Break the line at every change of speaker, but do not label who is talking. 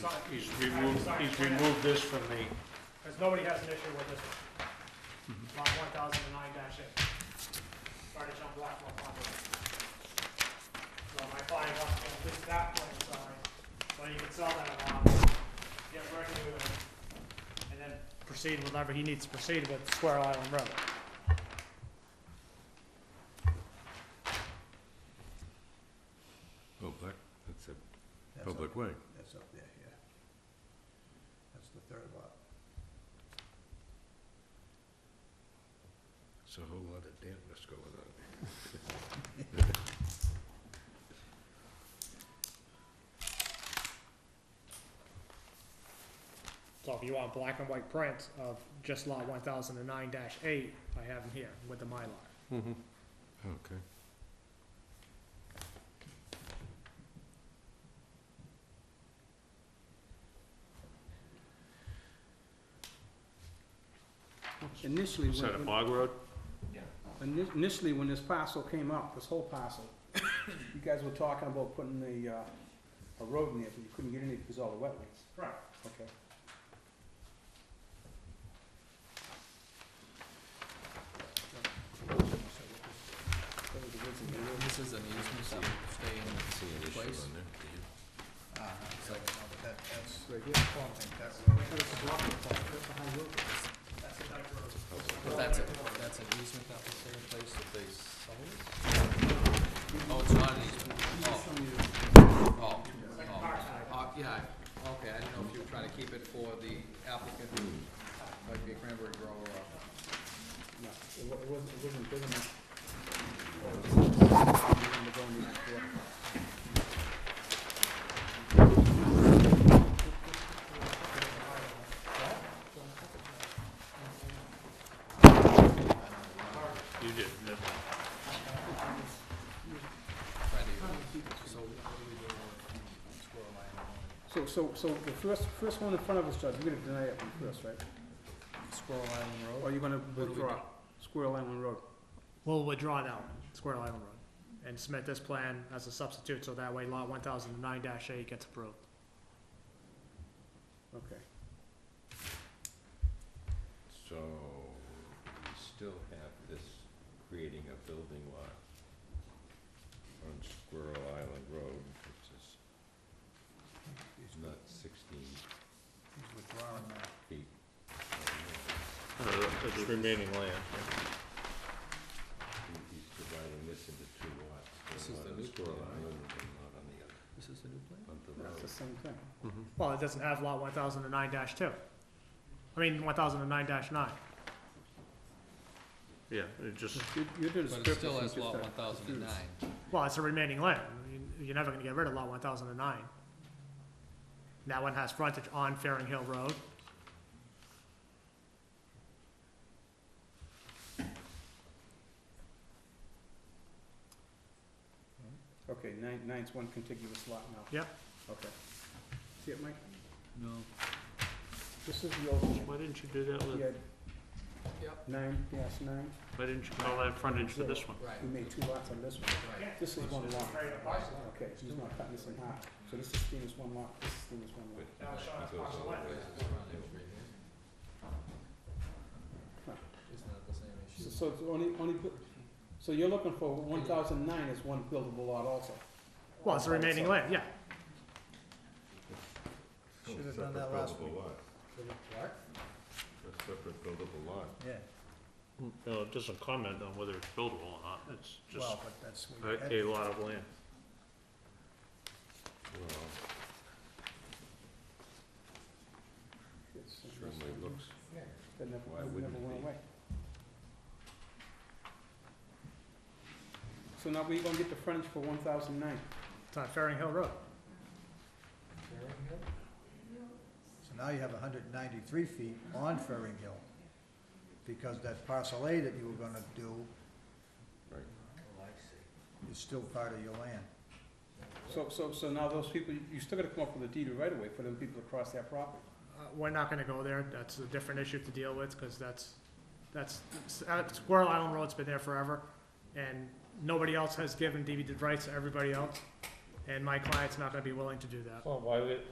sign,
He's removed, he's removed this from the,
because nobody has an issue with this one. Lot one thousand and nine dash eight. Frontage on Blackwell Pond Road. So my client wants to at least that plan signed, so he can sell that lot, get revenue, and then proceed with whatever he needs to proceed with Square Island Road.
Oh, that, that's a
That's up-
public way.
That's up there, yeah. That's the third lot.
It's a whole lot of dampness going on.
So if you want black and white print of just lot one thousand and nine dash eight, I have them here with the Mylar.
Okay.
Initially,
is that a
when-
bog road?
when, initially, when this parcel came up, this whole parcel, you guys were talking about putting a, uh, a road in there, but you couldn't get in it because of all the wetlands,
Right.
okay?
This is an easement that will stay in
See an issue
Place.
on there, do you?
Ah, so that, that's,
Right here.
I don't think that's where we-
but that's a, that's an easement that will stay in place if they sell it? Oh, it's not an easement, oh. Oh, oh, Uh, yeah, okay, I didn't know if you were trying to keep it for the applicant, like the cranberry grower or.
No, it wa- it wasn't, it wasn't big enough.
You did, no.
Freddie. So what do we do with Squirrel Island?
So, so, so the first, first one in front of us, Judge, you're gonna deny it one first, right?
Squirrel Island Road?
Or you're gonna
do we
withdraw
do?
Squirrel Island Road?
We'll withdraw that one, Square Island Road, and submit this plan as a substitute, so that way lot one thousand and nine dash eight gets approved.
Okay.
So, we still have this creating a building lot on Squirrel Island Road, which is not sixteen
he's withdrawing that.
feet. from
Uh, It's remaining land.
there. He- He's dividing this into two lots.
This
one
is the
on
new
Squirrel
plan,
Island and one on the other,
This is the new plan?
on the
That's
road.
the same thing.
Well, it doesn't have lot one thousand and nine dash two. I mean, one thousand and nine dash nine.
Yeah, it just,
You, you did a
But
script.
it still
you
has
just
lot
got
one thousand and
confused.
nine.
Well, it's a remaining land. You- You're never gonna get rid of lot one thousand and nine. That one has frontage on Fairing Hill Road.
Okay, nine, nine's one contiguous lot now.
Yep.
Okay. See it, Mike?
No.
This is the old, one.
why didn't you do that with,
yeah.
Yep.
Nine, yes, nine.
why didn't you call that frontage for this one?
Right,
We made two lots on this one.
right.
This is one lot.
Right, the parcel.
Okay, so he's not cutting this in half. So this is seen as one lot, this is seen as one lot.
But
Now it's showing us
he goes all the
parcel
way.
This is frontage right here.
Huh.
Isn't that the same
So,
issue?
so it's only, only, bu- so you're looking for one thousand nine as one buildable lot also?
Well, it's a remaining land, yeah.
Oh,
Should've done
separate
that last week.
buildable lot.
What?
A separate buildable lot.
Yeah,
No, it doesn't comment on whether it's buildable or not, it's just
well, but that's where
a,
you're
a
headed.
lot of land.
Well,
It's-
certainly looks,
That never,
Why
that
wouldn't
never
it
went
be?
away. So now we gonna get the frontage for one thousand nine?
It's on Fairing Hill Road.
So now you have hundred and ninety-three feet on Ferring Hill, because that parcel A that you were gonna do
right.
is still part of your land.
So, so, so now those people, you still gotta come up with a deed of right of way for them people to cross that property.
Uh, We're not gonna go there, that's a different issue to deal with, because that's, that's, uh, Squirrel Island Road's been there forever, and nobody else has given deeded rights to everybody else, and my client's not gonna be willing to do that.
Well, why would,